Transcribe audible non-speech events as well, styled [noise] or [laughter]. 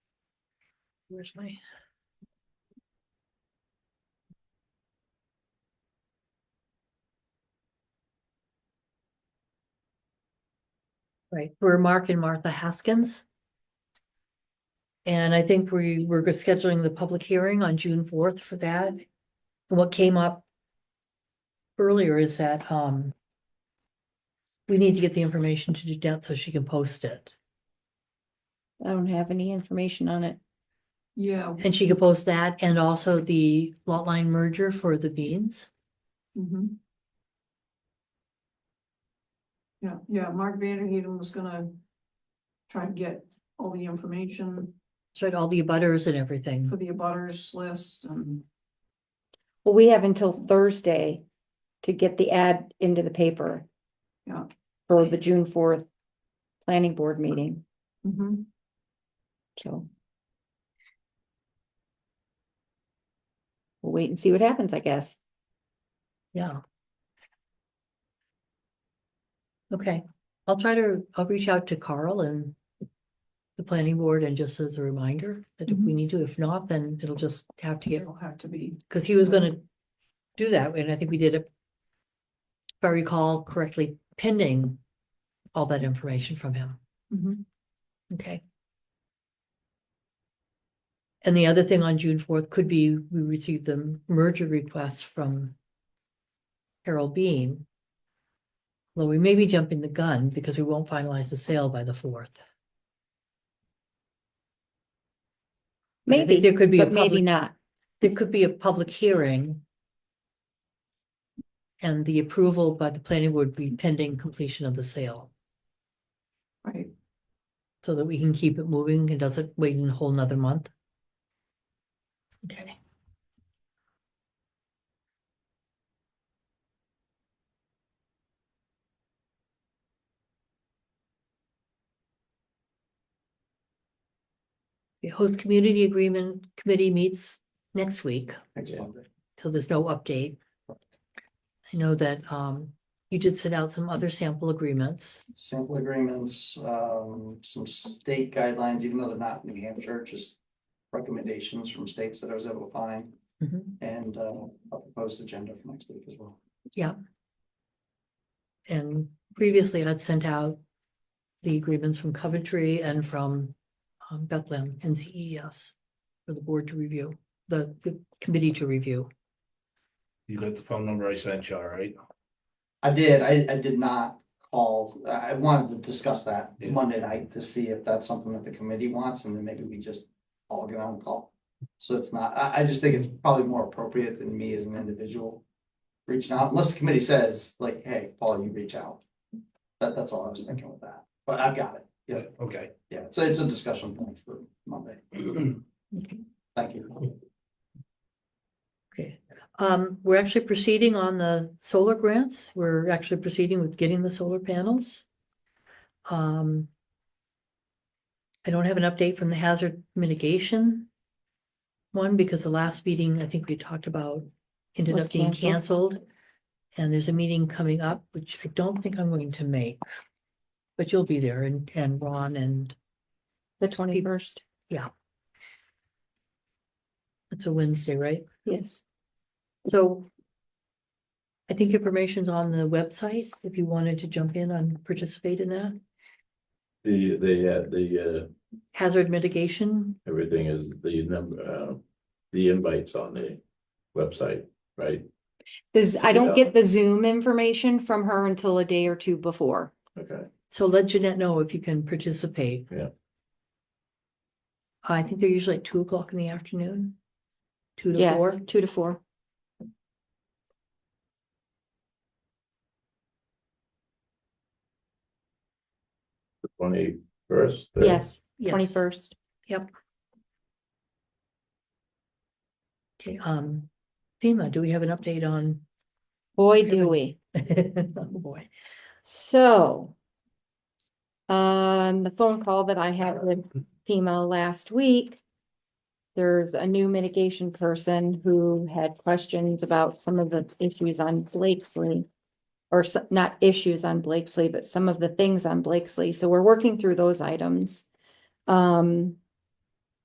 Where's my? Right, we're Mark and Martha Haskins. And I think we were scheduling the public hearing on June fourth for that. And What came up earlier is that, um, we need to get the information to Dudette so she can post it. I don't have any information on it. Yeah. And she could post that and also the lot line merger for the beans. mhm. Yeah, yeah, Mark Vanderheiden was gonna try to get all the information So had all the butters and everything. for the abutters list and, Well, we have until Thursday to get the ad into the paper. Yeah. For the June fourth planning board meeting, mhm, so. We'll wait and see what happens, I guess. Yeah. Okay, I'll try to, I'll reach out to Carl and the planning board and just as a reminder that if we need to, if not, then it'll just have to get, it'll have to be, because he was gonna do that, and I think we did it. If I recall correctly, pending all that information from him. mhm, Okay. And the other thing on June fourth could be, we received the merger request from Harold Bean. Though we may be jumping the gun because we won't finalize the sale by the fourth. I think Maybe, there could be a but maybe public- not. There could be a public hearing. And the approval by the planning board be pending completion of the sale, right? so that we can keep it moving and doesn't wait a whole nother month. Okay. The host community agreement committee meets next week, so there's no update. I know that um you did send out some other sample agreements. Sample agreements, um, some state guidelines, even though they're not New Hampshire, just recommendations from states that I was able to find. Mm-hmm. And, uh, a proposed agenda for next week as well. And previously I'd sent out the agreements from Coventry and from um, Bethlehem and CES for the board to review, the the committee to review. You got the phone number I sent you, all right? I did, I, I did not call, I I wanted to discuss that Yeah. Monday night to see if that's something that the committee wants, and then maybe we just all get on the call. So it's not, I, I just think it's probably more appropriate than me as an individual reaching out, unless the committee says, like, hey, Paul, you reach out. That, that's all I was thinking with that, but I've got it, yeah, Okay. yeah, so it's a discussion point for Monday, [clears throat] Okay. thank you. Okay, um, we're actually proceeding on the solar grants. We're actually proceeding with getting the solar panels. Um. I don't have an update from the hazard mitigation. One, because the last meeting, I think we talked about, ended Was up being canceled. canceled. And there's a meeting coming up, which I don't think I'm going to make. But you'll be there and, and Ron and The twenty-first, it's a Wednesday, right? yes. So I think information's on the website, if you wanted to jump in and participate in that. The, the, uh, the, uh, Hazard mitigation, everything is the number, uh, the invites on the website, right? There's, I don't Yeah. get uh, the Zoom information from her until a day or two before. Okay, so let Jeanette know if you can participate. Yeah. I think they're usually at two o'clock in the afternoon. Two to Yes, four, two to four. the twenty-first? Yes, yes, twenty-first. okay, um, FEMA, do we have an update on? [laughs] Boy, Really? do we. Oh, boy, So. On the phone call that I had with FEMA last week. There's a new mitigation person who had questions about some of the issues on Blakesley. Or so- not issues on Blakesley, but some of the things on Blakesley, so we're working through those items. Um.